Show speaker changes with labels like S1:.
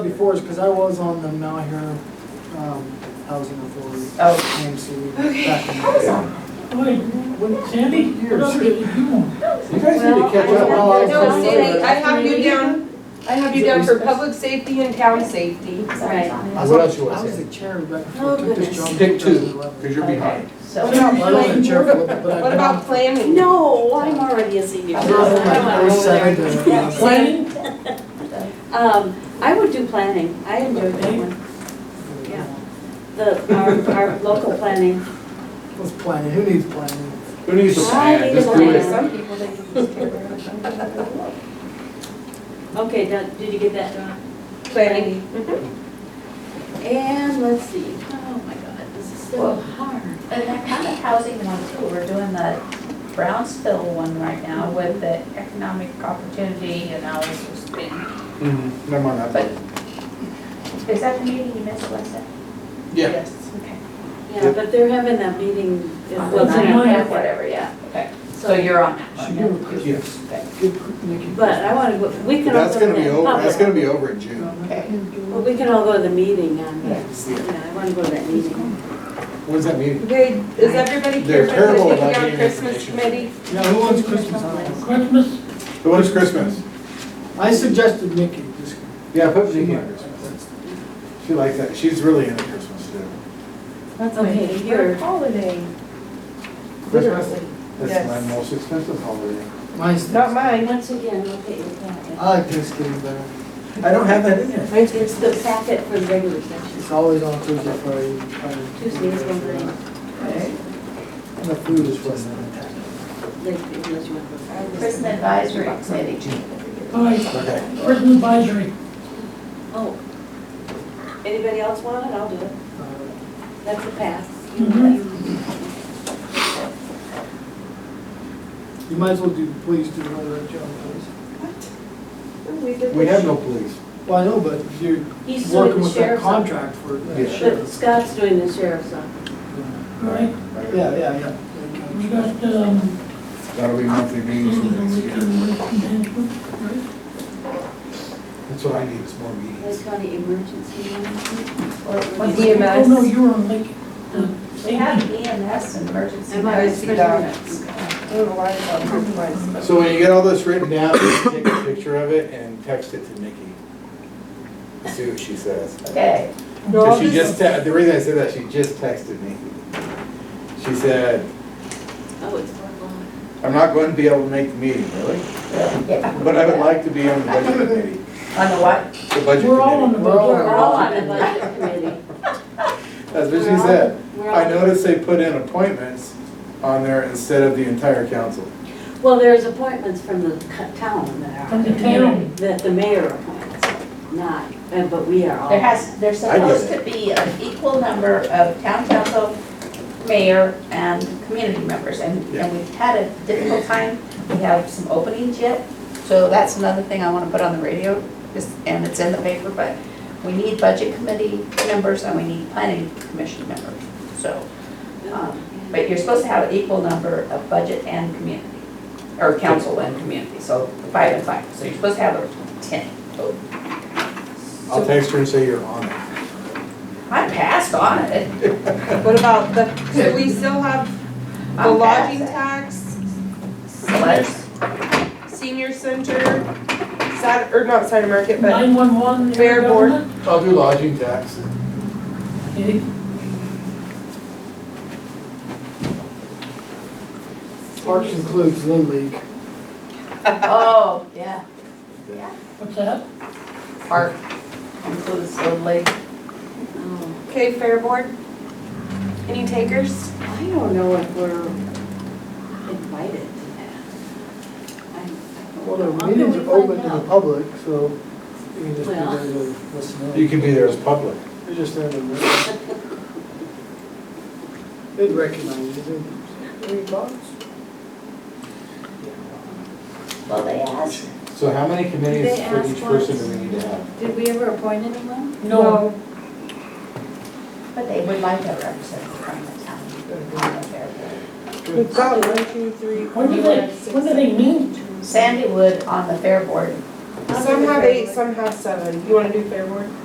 S1: force, because I was on the Mount Hero um, Housing Authority,
S2: Oh.
S1: AMC, back in the day.
S3: Wait, what, Sandy, what else did you do?
S4: You guys need to catch up.
S1: Well, I-
S2: No, Sandy, I have you down, I have you down for public safety and town safety.
S5: Right.
S1: I was
S4: What
S1: on-
S4: else you wanna
S1: I was
S4: say?
S1: the chair right before I
S5: Oh,
S1: took this
S5: goodness.
S1: job. in
S4: Pick two,
S1: 2011.
S4: because you're behind.
S1: I
S2: So,
S1: wasn't the chair for it, but I.
S2: what about planning?
S5: No, I'm already a senior.
S1: I was on my first
S5: I
S1: second
S5: don't
S1: to- uh,
S5: wanna go there.
S3: Planning?
S5: Um, I would do planning, I enjoyed that one, Yeah. the, our, our local planning.
S1: What's planning, who needs planning?
S4: Who needs a
S5: I
S4: plan?
S5: need
S4: Just
S5: a
S4: do
S5: plan.
S4: it.
S2: Some people think it's just terrible.
S5: Okay, done, did you get that, Dawn?
S2: Planning.
S5: And let's see, oh my God, this is so
S6: Well-
S5: hard.
S6: And that kind of housing one too, we're doing the Brownsville one right now with the economic opportunity and all this sort of thing.
S4: Mhm, Never mind that.
S6: But is that the meeting you missed, Lisa?
S4: Yeah,
S2: Yes.
S6: Okay.
S5: Yeah, but they're having that meeting. in
S6: On
S5: Uh, the
S6: the
S3: Wasn't
S5: night.
S3: it?
S6: ninth, yeah, whatever, yeah. Okay. So you're on that
S1: She
S6: one.
S1: gave a
S6: then.
S4: yes.
S6: Okay.
S1: Good, quick, Nikki.
S5: But I wanna go, we can all
S4: That's
S5: go to
S4: gonna be
S5: that
S4: over, that's
S5: public,
S4: gonna be over in June.
S6: Okay.
S5: well, we can all go to the meeting on that,
S4: Yeah.
S5: yeah, I wanna go to that meeting.
S4: When's that meeting?
S2: Okay, is everybody
S4: They're
S2: here for
S4: terrible
S2: the
S4: about
S2: taking
S4: getting
S2: out Christmas
S4: information.
S2: committee?
S1: Yeah, who wants Christmas holidays?
S3: Christmas?
S4: So When is Christmas?
S1: I suggested Nikki this.
S4: Yeah, put Nikki in Christmas. She likes that, she's really into Christmas too.
S5: That's okay. Here,
S2: Holiday.
S4: Christmas, that's
S2: Yes.
S4: my most expensive holiday.
S1: Mine's.
S2: mine.
S5: once again, look at your packet.
S1: I like Thanksgiving better.
S4: I don't have that in there.
S5: It's, it's the packet for the regular session.
S1: It's always on Tuesday, Friday. Friday.
S5: Tuesday is one day.
S1: And the food is what's not
S5: Like, unless you want to go.
S6: Prison Advisory Committee.
S3: All right,
S4: Okay,
S3: prison advisory.
S5: Oh. Anybody else want it? I'll do it. That's a pass.
S1: You might as well do, please do another job, please.
S4: we have no police.
S1: Well, I know, but you're
S5: He's doing
S1: working
S5: the
S1: with that
S5: sheriff's office.
S1: contract for
S4: Yeah.
S1: that
S5: But
S1: sheriff.
S5: Scott's doing the sheriff's office.
S3: All right,
S1: Yeah, yeah, yeah.
S3: we got, um,
S4: That'll be monthly meetings for next year.
S3: management,
S4: That's what I need, is more meetings.
S5: Lake County Emergency Management.
S3: right?
S2: The EMS.
S3: Oh, no, you were on Lincoln.
S6: We have EMS and emergency.
S5: Am I-
S6: medicine.
S4: So when you get all this written down, you take a picture of it and text it to Nikki. See what she says.
S6: Okay.
S4: So she just, te- the reason I said that, she just texted me. She said,
S5: Oh, it's horrible.
S4: I'm not going to be able to make the meeting, really?
S6: Yeah.
S4: But I would like to be on the budget committee,
S6: On the what?
S4: the budget
S3: We're all on
S4: committee.
S3: the.
S1: We're all-
S5: We're all on the budget committee.
S4: That's what she said. I noticed they put in appointments on there instead of the entire council.
S5: Well, there's appointments from the co- town that
S3: From the
S5: are,
S3: town.
S5: that the mayor appoints, not, uh, but we are all.
S6: There has, there's
S4: I get
S6: supposed to be an equal number of town council, mayor, and community members, and,
S4: Yeah.
S6: and we've had a difficult time. We have some openings yet, so that's another thing I wanna put on the radio, is- and it's in the paper, but we need budget committee members and we need planning commission members, so. um, But you're supposed to have an equal number of budget and community, or council and community, so five and five, so you're supposed to have ten. Oh,
S4: I'll text her and say you're on it.
S6: I passed on it.
S2: What about the, so we still have the
S6: I'm
S2: lodging
S6: passed.
S2: tax,
S6: Select.
S2: senior center, Sat, or not Saturday market, but
S3: Nine-one-one.
S2: Fair board.
S4: I'll do lodging tax.
S3: Okay,
S1: Parks includes Little League.
S6: Oh, yeah,
S3: what's that?
S6: park includes the lake.
S5: Oh,
S2: okay, fair board. Any takers?
S5: I don't know if we're invited to that. I- I
S1: Well,
S5: don't know.
S1: the
S5: How
S1: meetings are
S5: can we find
S1: open to the
S5: out?
S1: public, so you can just be
S5: Well.
S1: there to listen
S4: You
S1: in.
S4: can be there as public.
S1: You're just there to listen. They'd recognize you, too.
S6: Well, they asked.
S4: So how many committees
S5: They
S4: for
S5: asked
S4: each person
S5: once.
S4: do we need to have?
S5: Did we ever appoint anyone?
S3: No,
S6: But they would like a representative from the town. on the Fair
S2: We've got one, two, three, four,
S3: when do they,
S2: five, six.
S3: when do they meet?
S6: Board. Sandy Wood on the Fair Board
S2: Some have eight, some have seven. You wanna do fair board?